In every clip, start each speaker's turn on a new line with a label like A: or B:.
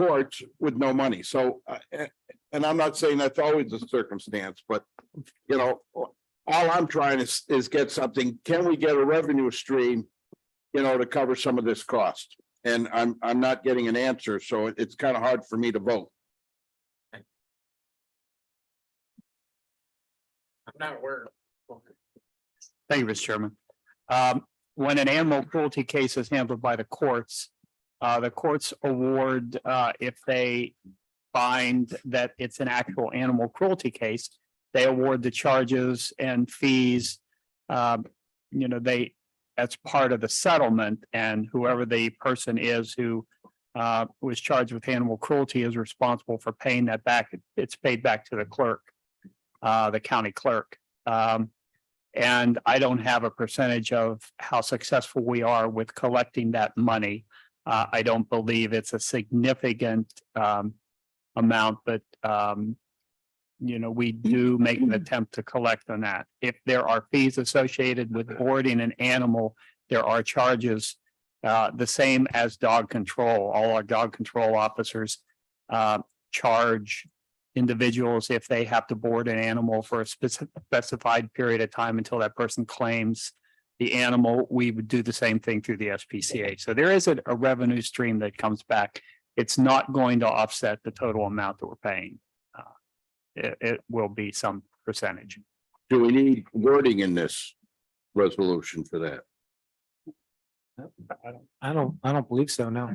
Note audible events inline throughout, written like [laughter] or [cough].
A: courts with no money. So, uh, eh, and I'm not saying that's always the circumstance, but, you know, all I'm trying is, is get something, can we get a revenue stream, you know, to cover some of this cost? And I'm, I'm not getting an answer, so it- it's kind of hard for me to vote.
B: I'm not aware.
C: Thank you, Mr. Chairman. Um, when an animal cruelty case is handled by the courts, uh, the courts award, uh, if they find that it's an actual animal cruelty case, they award the charges and fees. Um, you know, they, that's part of the settlement and whoever the person is who uh, was charged with animal cruelty is responsible for paying that back. It's paid back to the clerk, uh, the county clerk. Um, and I don't have a percentage of how successful we are with collecting that money. Uh, I don't believe it's a significant um amount, but um. You know, we do make an attempt to collect on that. If there are fees associated with boarding an animal, there are charges. Uh, the same as dog control. All our dog control officers uh charge individuals if they have to board an animal for a speci- specified period of time until that person claims the animal, we would do the same thing through the SPCA. So there is a, a revenue stream that comes back. It's not going to offset the total amount that we're paying. Uh, It, it will be some percentage.
A: Do we need wording in this resolution for that?
B: I don't, I don't believe so, no.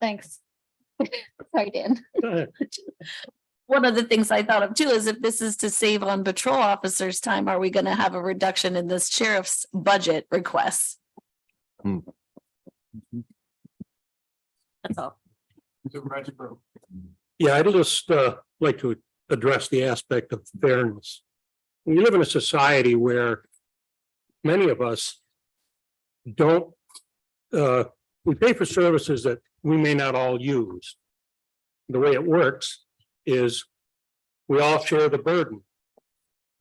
D: Thanks. [laughs] Sorry, Dan. One of the things I thought of too is if this is to save on patrol officers' time, are we gonna have a reduction in this sheriff's budget requests?
A: Hmm.
D: That's all.
E: Yeah, I'd just uh like to address the aspect of fairness. We live in a society where many of us don't uh, we pay for services that we may not all use. The way it works is we all share the burden.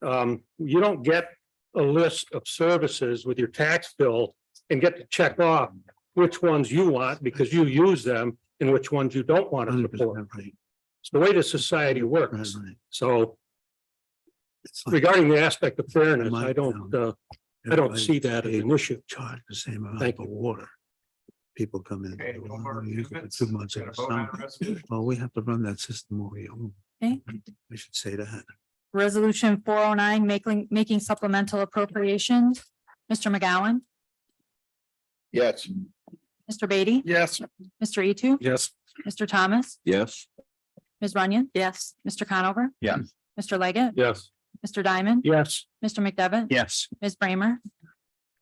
E: Um, you don't get a list of services with your tax bill and get to check off which ones you want because you use them and which ones you don't want to support. It's the way the society works. So regarding the aspect of fairness, I don't, uh, I don't see that as an issue.
F: Charge the same amount
E: Thank
F: for
E: you.
F: water. People come in.
B: Okay,
F: they
B: no
F: want
B: more
F: to use it for
B: amendments?
F: Two months.
B: Got a
F: at a
B: vote on
F: time.
B: the resolution?
F: Well, we have to run that system over your own.
G: Okay.
F: We should say that.
G: Resolution four oh nine, making, making supplemental appropriations. Mr. McGowan,
A: Yes.
G: Mr. Beatty,
B: Yes.
G: Mr. Etu,
E: Yes.
G: Mr. Thomas,
A: Yes.
G: Ms. Runyon. Yes. Mr. Conover.
C: Yes.
G: Mr. Leggett,
E: Yes.
G: Mr. Diamond,
E: Yes.
G: Mr. McDevitt.
C: Yes.
G: Ms. Bramer,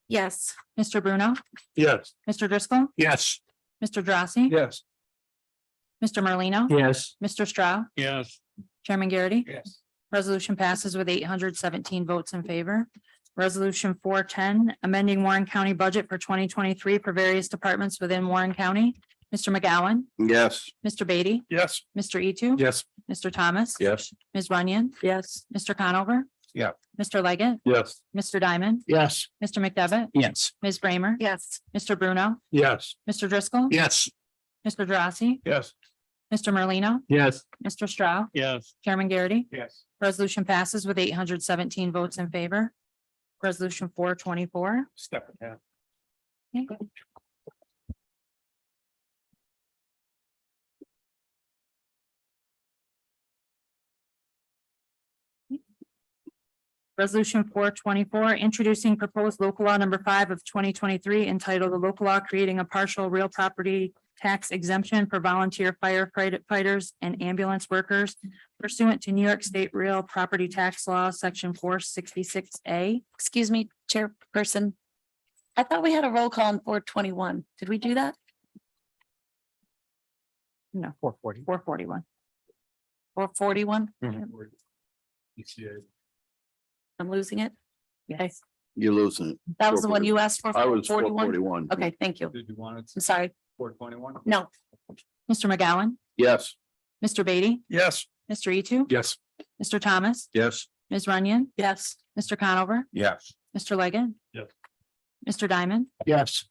D: Yes,
G: Mr. Bruno,
E: Yes.
G: Mr. Driscoll,
E: Yes.
G: Mr. Drossy.
E: Yes.
G: Mr. Merlino,
E: Yes.
G: Mr. Straugh,
E: Yes.
G: Chairman Garrity.
B: Yes.
G: Resolution passes with eight hundred seventeen votes in favor. Resolution four ten, amending Warren County budget for twenty twenty-three for various departments within Warren County. Mr. McGowan,
A: Yes.
G: Mr. Beatty,
E: Yes.
G: Mr. Etu.
E: Yes.
G: Mr. Thomas.
A: Yes.
G: Ms. Runyon. Yes. Mr. Conover.
A: Yeah.
G: Mr. Leggett,
E: Yes.
G: Mr. Diamond,
E: Yes.
G: Mr. McDevitt,
C: Yes.
G: Ms. Bramer,
D: yes,
G: Mr. Bruno,
E: Yes.
G: Mr. Driscoll.
E: Yes.
G: Mr. Drossy,
E: Yes.
G: Mr. Merlino,
E: Yes.
G: Mr. Straugh,
E: Yes.
G: Chairman Garrity.
B: Yes.
G: Resolution passes with eight hundred seventeen votes in favor. Resolution four twenty-four.
B: Step it down.
G: Resolution four twenty-four, introducing proposed local law number five of twenty twenty-three entitled "A Local Law Creating a Partial Real Property Tax Exemption for Volunteer Firefighters and Ambulance Workers pursuant to New York State Real Property Tax Law, section four sixty-six A.
D: excuse me, Chairperson. I thought we had a roll call on four twenty-one. Did we do that?
G: No, four forty. Four forty-one.
D: Or forty-one? I'm losing it.
G: Yes.
A: You're losing it.
D: That was the one you asked
B: Uh,
D: for.
A: I was four
D: 41?
A: forty-one.
D: Okay, thank you.
B: Did you want it
D: I'm sorry.
B: four twenty-one?
D: No,
G: Mr. McGowan,
A: Yes.
G: Mr. Beatty,
E: Yes.
G: Mr. Etu,
E: Yes.
G: Mr. Thomas,
A: Yes.
G: Ms. Runyon,
D: yes,
G: Mr. Conover,
A: Yes.
G: Mr. Leggett.
E: Yes.
G: Mr. Diamond,
E: Yes.